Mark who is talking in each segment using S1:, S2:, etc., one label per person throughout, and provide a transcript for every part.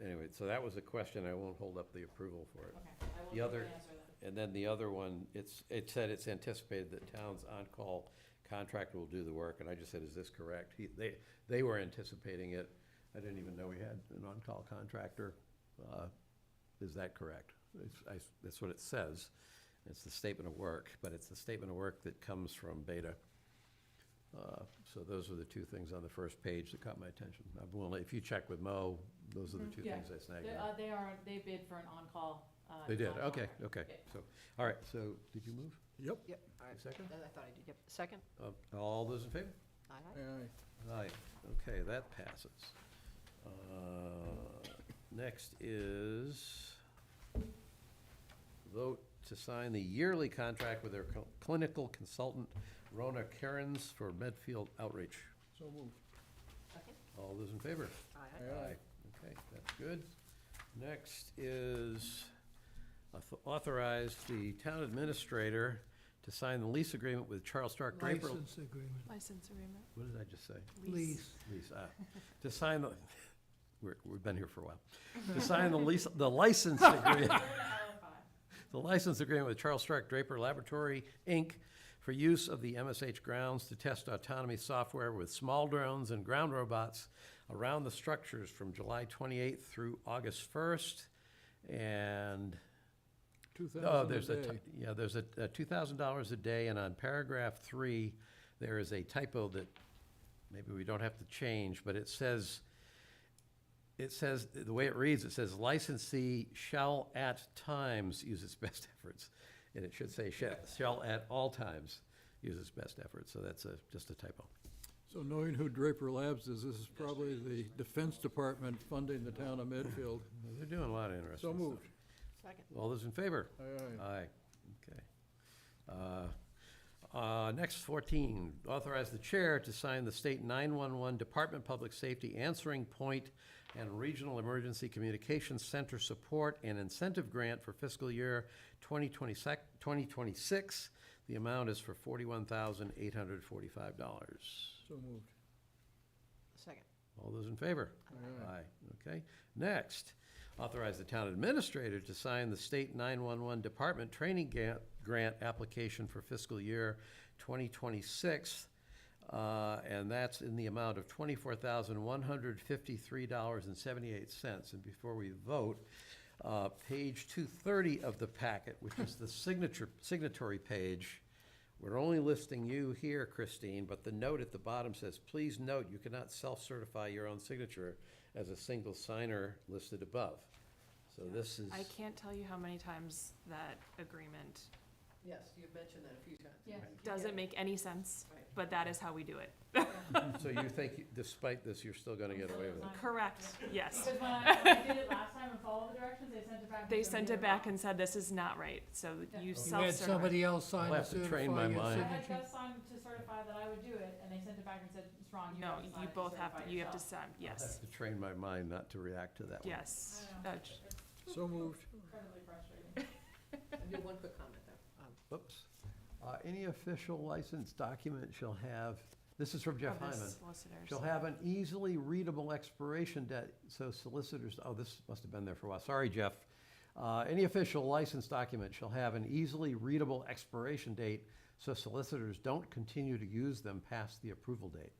S1: it- so that was a question, I won't hold up the approval for it.
S2: Okay, I
S1: The
S2: will
S1: other-
S2: answer that.
S1: And then the other one, it's, it said it's anticipated that town's on-call contractor will do the work, and I just said, is this correct? He, they, they were anticipating it, I didn't even know we had an on-call contractor. Uh, Is that correct? It's, I, that's what it says, it's the statement of work, but it's the statement of work that comes from Beta. Uh, So those are the two things on the first page that caught my attention. I'm willing, if you check with Mo, those are the
S2: Mhm.
S1: two
S2: Yeah.
S1: things I snagged
S2: They,
S1: on.
S2: uh, they are, they bid for an on-call, uh.
S1: They did,
S2: design
S1: okay,
S2: contract.
S1: okay,
S2: Yeah.
S1: so, all right, so, did you move?
S3: Yep.
S4: Yep, all right.
S1: Second?
S4: I thought I did, yep. Second?
S1: Uh, All those in favor?
S4: Aye, aye.
S3: Aye.
S1: Aye, okay, that passes. Uh, Next is vote to sign the yearly contract with their cl- clinical consultant, Rona Kerens, for Medfield Outreach.
S3: So moved.
S4: Second?
S1: All those in favor?
S4: Aye, aye.
S3: Aye.
S1: Okay, that's good. Next is auth- authorize the town administrator to sign the lease agreement with Charles Stark Draper.
S3: License agreement.
S5: License agreement.
S1: What did I just say?
S3: Lease.
S1: Lease, ah, to sign the, we're, we've been here for a while. To sign the lease, the license agreement,
S2: Third and five.
S1: the license agreement with Charles Stark Draper Laboratory, Inc. for use of the MSH grounds to test autonomy software with small drones and ground robots around the structures from July twenty-eighth through August first. And
S3: Two
S1: Oh,
S3: thousand a
S1: there's a,
S3: day.
S1: ti- yeah, there's a, two thousand dollars a day, and on paragraph three, there is a typo that maybe we don't have to change, but it says, it says, the way it reads, it says licensee shall at times use its best efforts. And it should say shall, shall at all times use its best efforts, so that's a, just a typo.
S3: So knowing who Draper Labs is, this is probably the Defense Department funding the town of Medfield.
S1: They're doing a lot of interesting
S3: Mm-hmm.
S1: stuff.
S3: So moved.
S4: Second?
S1: All those in favor?
S3: Aye, aye.
S1: Aye, okay. Uh, uh, Next, 14, authorize the chair to sign the state 911 Department Public Safety Answering Point and Regional Emergency Communications Center Support and Incentive Grant for fiscal year 2026. 2026. The amount is for $41,845.
S3: So moved.
S4: Second.
S1: All those in favor?
S3: Aye, aye.
S1: Aye, okay. Next, authorize the town administrator to sign the state 911 Department Training Ga- Grant application for fiscal year 2026, uh, and that's in the amount of $24,153.78. And before we vote, uh, page 230 of the packet, which is the signature, signatory page, we're only listing you here, Christine, but the note at the bottom says, please note, you cannot self-certify your own signature as a single signer listed above. So this is,
S5: I can't tell you how many times that agreement
S4: Yes, you mentioned that a few times.
S2: Yes.
S5: doesn't make any sense,
S4: Right.
S5: but that is how we do it.
S1: so you think despite this, you're still gonna get away with it?
S5: Correct, yes.
S2: Because when I, when I did it last time and followed the directions, they sent it back. and
S5: They
S2: said,
S5: sent
S2: "Here
S5: it
S2: it
S5: back
S2: is."
S5: and said, this is not right, so
S3: You
S5: you
S3: had
S5: self-certify.
S3: somebody else sign
S1: I'll
S3: to
S1: have to train
S3: certify
S1: my
S3: your
S1: mind.
S2: I had
S3: signature.
S2: Gus sign to certify that I would do it, and they sent it back and said, it's wrong, you
S5: No,
S2: have to sign
S5: you
S2: it
S5: both have,
S2: certify
S5: you have to
S2: yourself."
S5: sign,
S1: I have
S5: yes,
S1: to train my mind not to react to that one.
S5: yes.
S2: I know.
S5: Uh,
S3: So moved.
S2: Incredibly frustrating.
S4: I do one quick comment, though. Um,
S1: Oops. Uh, any official license document shall have, this is from Jeff
S5: of the
S1: Hyman.
S5: solicitors.
S1: Shall have an easily readable expiration date, so solicitors, oh, this must have been there for a while, sorry, Jeff. Uh, Any official license document shall have an easily readable expiration date, so solicitors don't continue to use them past the approval date.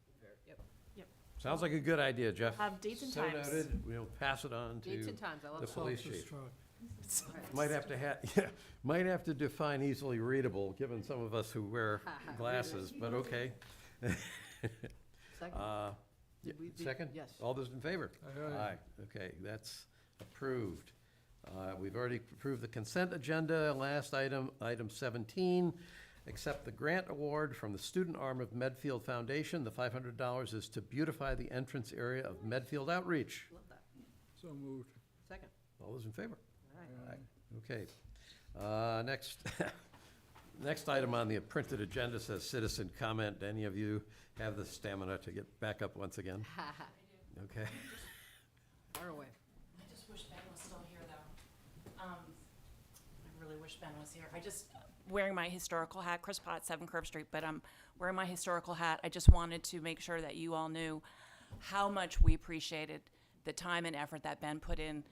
S4: Yep.
S1: Sounds like a good idea, Jeff.
S5: Have dates and times.
S1: So noted, we'll pass it on
S4: Dates
S1: to,
S4: and times, I love
S1: the
S4: that.
S1: police
S3: Officer
S1: chief.
S3: Strong.
S1: might have to ha, yeah, might have to define easily readable, given some of us who wear glasses, but okay.
S4: Second?
S1: Uh,
S4: Did we- did-
S1: Second? Oh.
S4: Yes.
S1: All those in favor?
S3: Aye, aye.
S1: Aye, okay, that's approved. Uh, We've already approved the consent agenda. Last item, item 17, accept the grant award from the student arm of Medfield Foundation. The $500 is to beautify the entrance area of Medfield Outreach.
S4: Love that.
S3: So moved.
S4: Second?
S1: All those in favor?
S4: All right.
S3: Aye.
S1: Okay. Uh, Next, next item on the printed agenda says citizen comment. Any of you have the stamina to get back up once again?
S4: Ha ha,
S1: Okay.
S4: far away.
S6: I just wish Ben was still here, though. Um, I really wish Ben was here. I just, wearing my historical hat, Chris Potts, Seven Curve Street, but I'm wearing my historical hat. I just wanted to make sure that you all knew how much we appreciated the time and effort that Ben put in